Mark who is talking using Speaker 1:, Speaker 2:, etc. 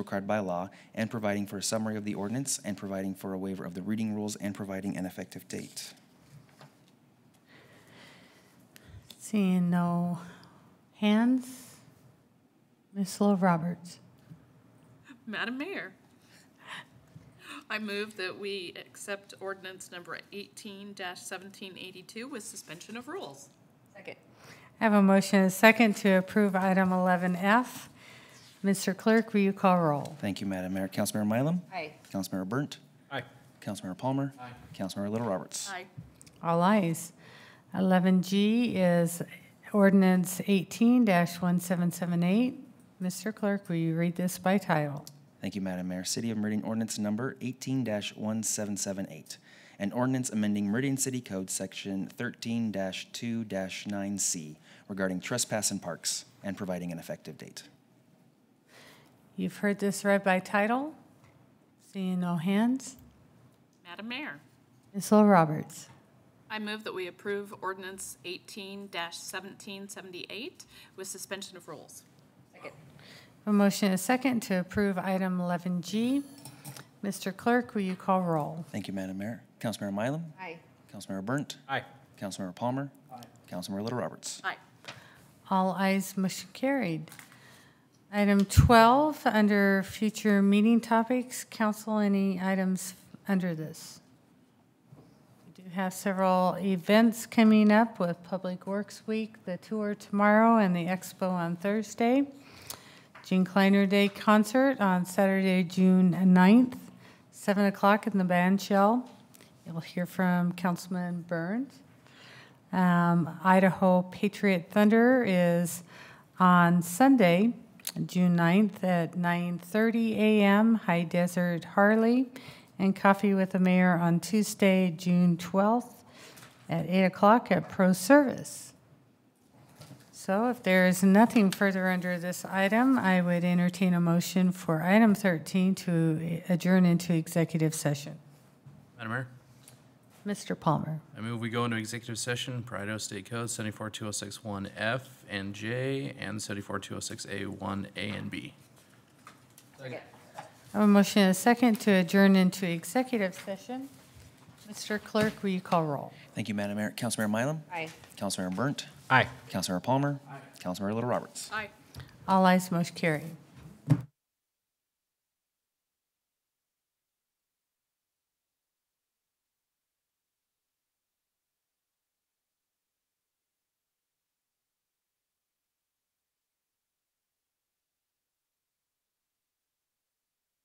Speaker 1: required by law, and providing for a summary of the ordinance, and providing for a waiver of the reading rules, and providing an effective date.
Speaker 2: Seeing no hands, Ms. Love Roberts.
Speaker 3: Madam Mayor, I move that we accept ordinance number eighteen seventeen eighty-two with suspension of rules.
Speaker 2: I have a motion and a second to approve item 11F. Mr. Clerk, will you call roll?
Speaker 1: Thank you, Madam Mayor. Councilmember Mylum?
Speaker 4: Aye.
Speaker 1: Councilmember Burnt?
Speaker 5: Aye.
Speaker 1: Councilmember Palmer? Aye. Councilmember Little Roberts?
Speaker 3: Aye.
Speaker 2: All ayes. 11G is ordinance 18-1778. Mr. Clerk, will you read this by title?
Speaker 1: Thank you, Madam Mayor. City of Meridian ordinance number eighteen one seven seven eight. An ordinance amending Meridian City Code Section thirteen two nine C regarding trespass in parks and providing an effective date.
Speaker 2: You've heard this read by title. Seeing no hands,
Speaker 3: Madam Mayor,
Speaker 2: Ms. Love Roberts.
Speaker 3: I move that we approve ordinance eighteen seventeen seventy-eight with suspension of rules.
Speaker 2: A motion and a second to approve item 11G. Mr. Clerk, will you call roll?
Speaker 1: Thank you, Madam Mayor. Councilmember Mylum?
Speaker 4: Aye.
Speaker 1: Councilmember Burnt?
Speaker 5: Aye.
Speaker 1: Councilmember Palmer? Aye. Councilmember Little Roberts?
Speaker 3: Aye.
Speaker 2: All eyes motion carried. Item 12, under future meeting topics, council, any items under this? We do have several events coming up with Public Works Week, the tour tomorrow, and the expo on Thursday. Gene Kleiner Day Concert on Saturday, June 9th, 7 o'clock in the band shell. You'll hear from Councilman Burns. Um, Idaho Patriot Thunder is on Sunday, June 9th at 9:30 a.m. High Desert Harley, and Coffee with the Mayor on Tuesday, June 12th at 8 o'clock at Pro Service. So if there is nothing further under this item, I would entertain a motion for item 13 to adjourn into executive session.
Speaker 5: Madam Mayor,
Speaker 2: Mr. Palmer.
Speaker 5: I move we go into executive session, per Idaho State Code seventy-four two oh six one F and J and seventy-four two oh six A one A and B.
Speaker 2: I have a motion and a second to adjourn into executive session. Mr. Clerk, will you call roll?
Speaker 1: Thank you, Madam Mayor. Councilmember Mylum?
Speaker 4: Aye.
Speaker 1: Councilmember Burnt?
Speaker 5: Aye.
Speaker 1: Councilmember Palmer? Aye. Councilmember Little Roberts?
Speaker 3: Aye.
Speaker 2: All eyes motion carried.